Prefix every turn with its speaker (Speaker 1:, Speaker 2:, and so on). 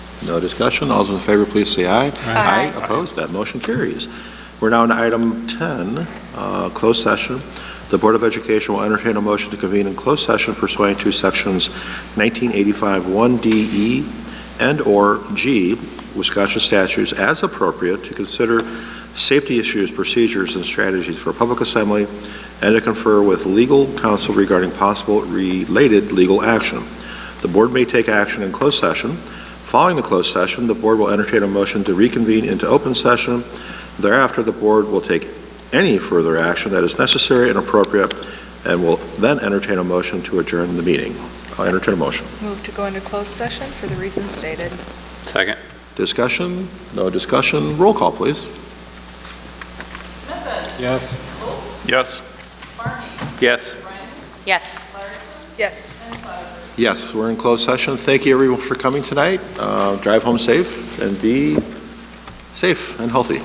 Speaker 1: No discussion? All those in favor, please say aye.
Speaker 2: Aye.
Speaker 1: Opposed? That motion carries. We're now on item 10, uh, closed session. The Board of Education will entertain a motion to convene in closed session pursuant to Sections 1985-1DE and/or E, G Wisconsin statutes as appropriate to consider safety issues, procedures, and strategies for public assembly, and to confer with legal counsel regarding possible related legal action. The board may take action in closed session. Following the closed session, the board will entertain a motion to reconvene into open session. Thereafter, the board will take any further action that is necessary and appropriate, and will then entertain a motion to adjourn the meeting. I'll entertain a motion.
Speaker 2: Move to go into closed session for the reasons stated.
Speaker 3: Second.
Speaker 1: Discussion? No discussion? Roll call, please.
Speaker 3: Yes. Yes. Yes.
Speaker 4: Yes.
Speaker 2: Yes.
Speaker 1: Yes, we're in closed session. Thank you, everyone, for coming tonight. Uh, Drive home safe and be safe and healthy.